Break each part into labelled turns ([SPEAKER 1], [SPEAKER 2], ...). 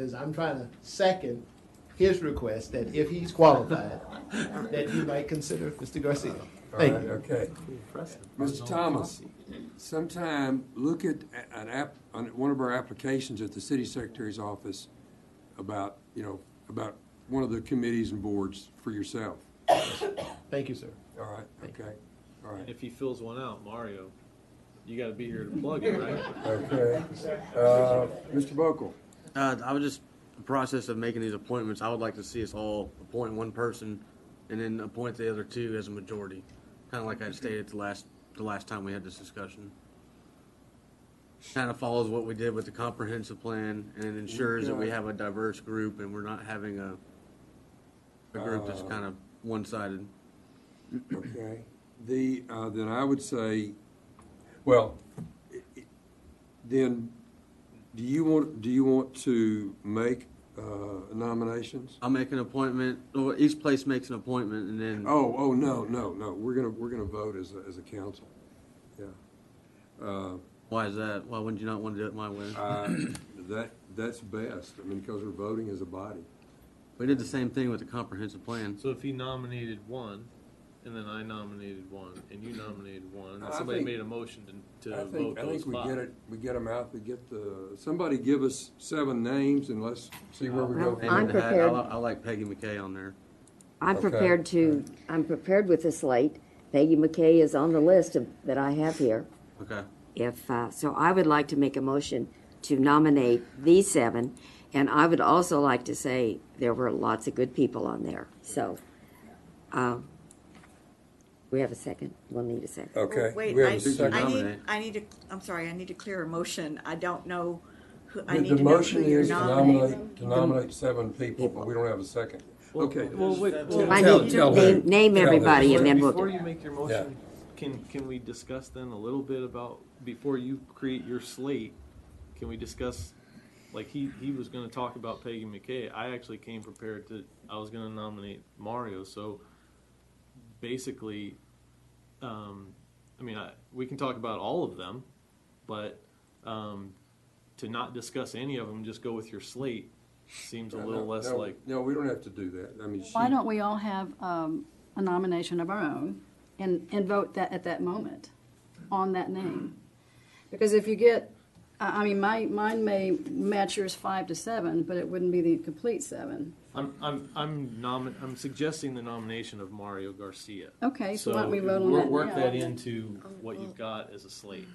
[SPEAKER 1] is I'm trying to second his request that if he's qualified, that you might consider Mr. Garcia. Thank you.
[SPEAKER 2] Okay.
[SPEAKER 3] Mr. Thomas, sometime look at a- an app, on one of our applications at the city secretary's office about, you know, about one of the committees and boards for yourself.
[SPEAKER 1] Thank you, sir.
[SPEAKER 3] All right, okay, all
[SPEAKER 4] And
[SPEAKER 3] right,
[SPEAKER 4] if he fills one out, Mario, you gotta be here to plug it, right?
[SPEAKER 3] okay. Uh, Mr. Buckle,
[SPEAKER 5] Uh, I was just, the process of making these appointments, I would like to see us all appoint one person and then appoint the other two as a majority. Kinda like I stated the last, the last time we had this discussion. Kinda follows what we did with the comprehensive plan and it ensures that we have a diverse group and we're not having a, a group that's kinda one-sided.
[SPEAKER 3] okay. The, uh, then I would say, well, i- i- then, do you want, do you want to make uh, nominations?
[SPEAKER 5] I'll make an appointment, or each place makes an appointment and then.
[SPEAKER 3] Oh, oh, no, no, no, we're gonna, we're gonna vote as, a as a council, yeah. Uh,
[SPEAKER 5] Why is that? Why wouldn't you not wanna do it my way?
[SPEAKER 3] I- Uh, That, that's best, I mean, because we're voting as a body.
[SPEAKER 5] We did the same thing with the comprehensive plan.
[SPEAKER 4] So if he nominated one, and then I nominated one, and you nominated one, and
[SPEAKER 3] I
[SPEAKER 4] then somebody
[SPEAKER 3] think-
[SPEAKER 4] made a motion to,
[SPEAKER 3] I
[SPEAKER 4] to vote
[SPEAKER 3] think, I
[SPEAKER 4] those
[SPEAKER 3] think we get
[SPEAKER 4] five.
[SPEAKER 3] it, we get them out, we get the, somebody give us seven names and let's see where we go.
[SPEAKER 5] Hand
[SPEAKER 3] from
[SPEAKER 5] in
[SPEAKER 6] I'm
[SPEAKER 5] the hat. I
[SPEAKER 6] prepared.
[SPEAKER 5] li- I like Peggy McKay on there.
[SPEAKER 6] I'm
[SPEAKER 3] Okay.
[SPEAKER 6] prepared to, I'm prepared with the slate. Peggy McKay is on the list of- that I have here.
[SPEAKER 5] Okay.
[SPEAKER 6] If, uh, so I would like to make a motion to nominate these seven, and I would also like to say there were lots of good people on there, so. uh, We have a second, we'll need a second.
[SPEAKER 3] Okay.
[SPEAKER 7] Oh, Wait,
[SPEAKER 3] we have
[SPEAKER 7] I,
[SPEAKER 3] a second.
[SPEAKER 7] I need,
[SPEAKER 5] nominate.
[SPEAKER 7] I need to, I'm sorry, I need to clear a motion. I don't know who, I
[SPEAKER 3] The-
[SPEAKER 7] need
[SPEAKER 3] The
[SPEAKER 7] to know who
[SPEAKER 3] motion
[SPEAKER 7] you're
[SPEAKER 3] is to
[SPEAKER 7] nominating.
[SPEAKER 3] nominate, to nominate seven people, but we don't have a second. Okay.
[SPEAKER 4] Well, wait, well,
[SPEAKER 6] I
[SPEAKER 3] Tell-
[SPEAKER 6] need
[SPEAKER 3] tell
[SPEAKER 6] to
[SPEAKER 3] her.
[SPEAKER 6] name- name
[SPEAKER 3] Tell her.
[SPEAKER 6] everybody and then we'll.
[SPEAKER 4] before you make your motion, can, can we discuss then a little bit about, before you create your slate, can we discuss, like, he, he was gonna talk about Peggy McKay, I actually came prepared to, I was gonna nominate Mario, so basically, um, I mean, I, we can talk about all of them, but, um, to not discuss any of them, just go with your slate, seems a
[SPEAKER 3] No,
[SPEAKER 4] little less
[SPEAKER 3] no,
[SPEAKER 4] like,
[SPEAKER 3] No, we don't have to do that, I mean, she.
[SPEAKER 8] Why don't we all have um, a nomination of our own and, and vote that, at that moment, on that name? Because if you get, I, I mean, my, mine may match yours five to seven, but it wouldn't be the complete seven.
[SPEAKER 4] I'm, I'm, I'm nomin, I'm suggesting the nomination of Mario Garcia.
[SPEAKER 8] Okay, so why don't we vote on
[SPEAKER 4] wor-
[SPEAKER 8] that now?
[SPEAKER 4] Work that into what
[SPEAKER 7] Oh.
[SPEAKER 4] you've got as a slate.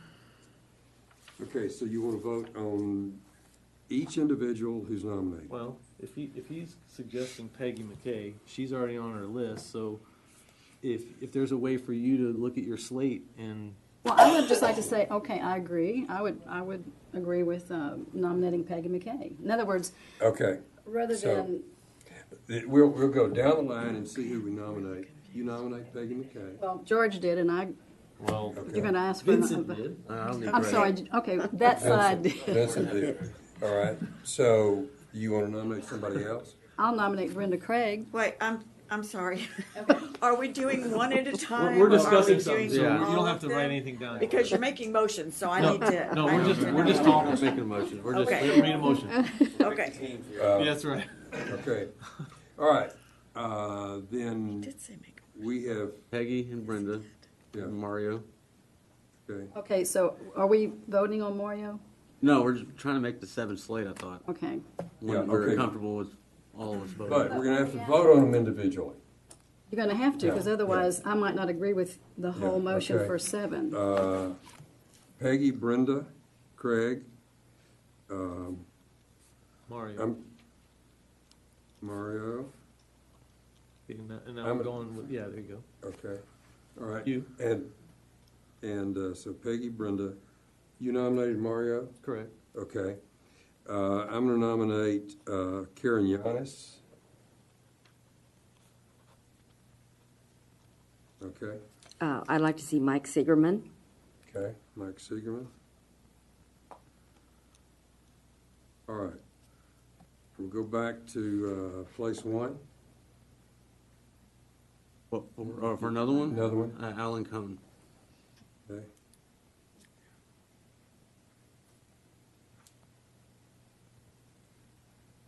[SPEAKER 3] Okay, so you want to vote on each individual who's nominated?
[SPEAKER 4] Well, if he, if he's suggesting Peggy McKay, she's already on our list, so if, if there's a way for you to look at your slate and,
[SPEAKER 8] Well, I would just like to say, okay, I agree. I would, I would agree with uh, nominating Peggy McKay. In other words,
[SPEAKER 3] Okay,
[SPEAKER 8] rather
[SPEAKER 3] So-
[SPEAKER 8] than,
[SPEAKER 3] Th- we'll, we'll go down the line and see who we nominate. You nominate Peggy McKay.
[SPEAKER 8] well, George did, and I,
[SPEAKER 4] well,
[SPEAKER 8] you're going to ask for.
[SPEAKER 4] Vincent did.
[SPEAKER 5] Uh, I don't need
[SPEAKER 8] I'm
[SPEAKER 5] Greg.
[SPEAKER 8] sorry, okay, that side did.
[SPEAKER 3] Vincent did. All right, so you want to nominate somebody else?
[SPEAKER 8] I'll nominate Brenda Craig.
[SPEAKER 7] Wait, I'm, I'm sorry. Are we doing one at a time?
[SPEAKER 4] We're, we're
[SPEAKER 7] or are we
[SPEAKER 4] discussing something,
[SPEAKER 7] doing
[SPEAKER 4] so you
[SPEAKER 5] Yeah.
[SPEAKER 7] all
[SPEAKER 4] don't have
[SPEAKER 7] of
[SPEAKER 4] to
[SPEAKER 7] them?
[SPEAKER 4] write anything down.
[SPEAKER 7] Because you're making motions, so I
[SPEAKER 4] No,
[SPEAKER 7] need to.
[SPEAKER 4] no,
[SPEAKER 7] I
[SPEAKER 4] we're
[SPEAKER 7] need
[SPEAKER 4] just-
[SPEAKER 7] to
[SPEAKER 4] we're
[SPEAKER 7] know.
[SPEAKER 4] just talking.
[SPEAKER 5] We're making a motion. We're
[SPEAKER 4] Just
[SPEAKER 5] just,
[SPEAKER 7] Okay.
[SPEAKER 4] made a motion.
[SPEAKER 7] Okay.
[SPEAKER 3] Uh,
[SPEAKER 4] Yeah, that's right.
[SPEAKER 3] Okay, all right, uh, then
[SPEAKER 7] Did say make a-
[SPEAKER 3] we have,
[SPEAKER 5] Peggy and Brenda,
[SPEAKER 3] Yeah.
[SPEAKER 5] Mario.
[SPEAKER 3] okay,
[SPEAKER 8] Okay, so are we voting on Mario?
[SPEAKER 5] No, we're just trying to make the seven slate, I thought.
[SPEAKER 8] Okay,
[SPEAKER 5] When
[SPEAKER 3] Yeah,
[SPEAKER 5] we're
[SPEAKER 3] okay.
[SPEAKER 5] comfortable with all of us voting.
[SPEAKER 3] but we're gonna have to vote on them individually.
[SPEAKER 8] you're gonna have to, because
[SPEAKER 3] Yeah, yeah.
[SPEAKER 8] otherwise I might not agree with the whole
[SPEAKER 3] Yeah,
[SPEAKER 8] motion
[SPEAKER 3] okay.
[SPEAKER 8] for seven.
[SPEAKER 3] Uh, Peggy, Brenda, Craig, um,
[SPEAKER 4] Mario,
[SPEAKER 3] I'm, um, Mario,
[SPEAKER 4] and that- and now
[SPEAKER 3] I'm-
[SPEAKER 4] we're going with, yeah, there you go.
[SPEAKER 3] okay, all right.
[SPEAKER 4] You.
[SPEAKER 3] And, and uh, so Peggy, Brenda, you nominated Mario,
[SPEAKER 4] Correct.
[SPEAKER 3] okay. Uh, I'm gonna nominate uh, Karen Yanis. Okay,
[SPEAKER 6] Uh, I'd like to see Mike Siegerman.
[SPEAKER 3] okay, Mike Siegerman. All right, we'll go back to uh, place one,
[SPEAKER 5] What, for, or for another one?
[SPEAKER 3] another one,
[SPEAKER 5] Uh, Alan Cohn.
[SPEAKER 3] okay?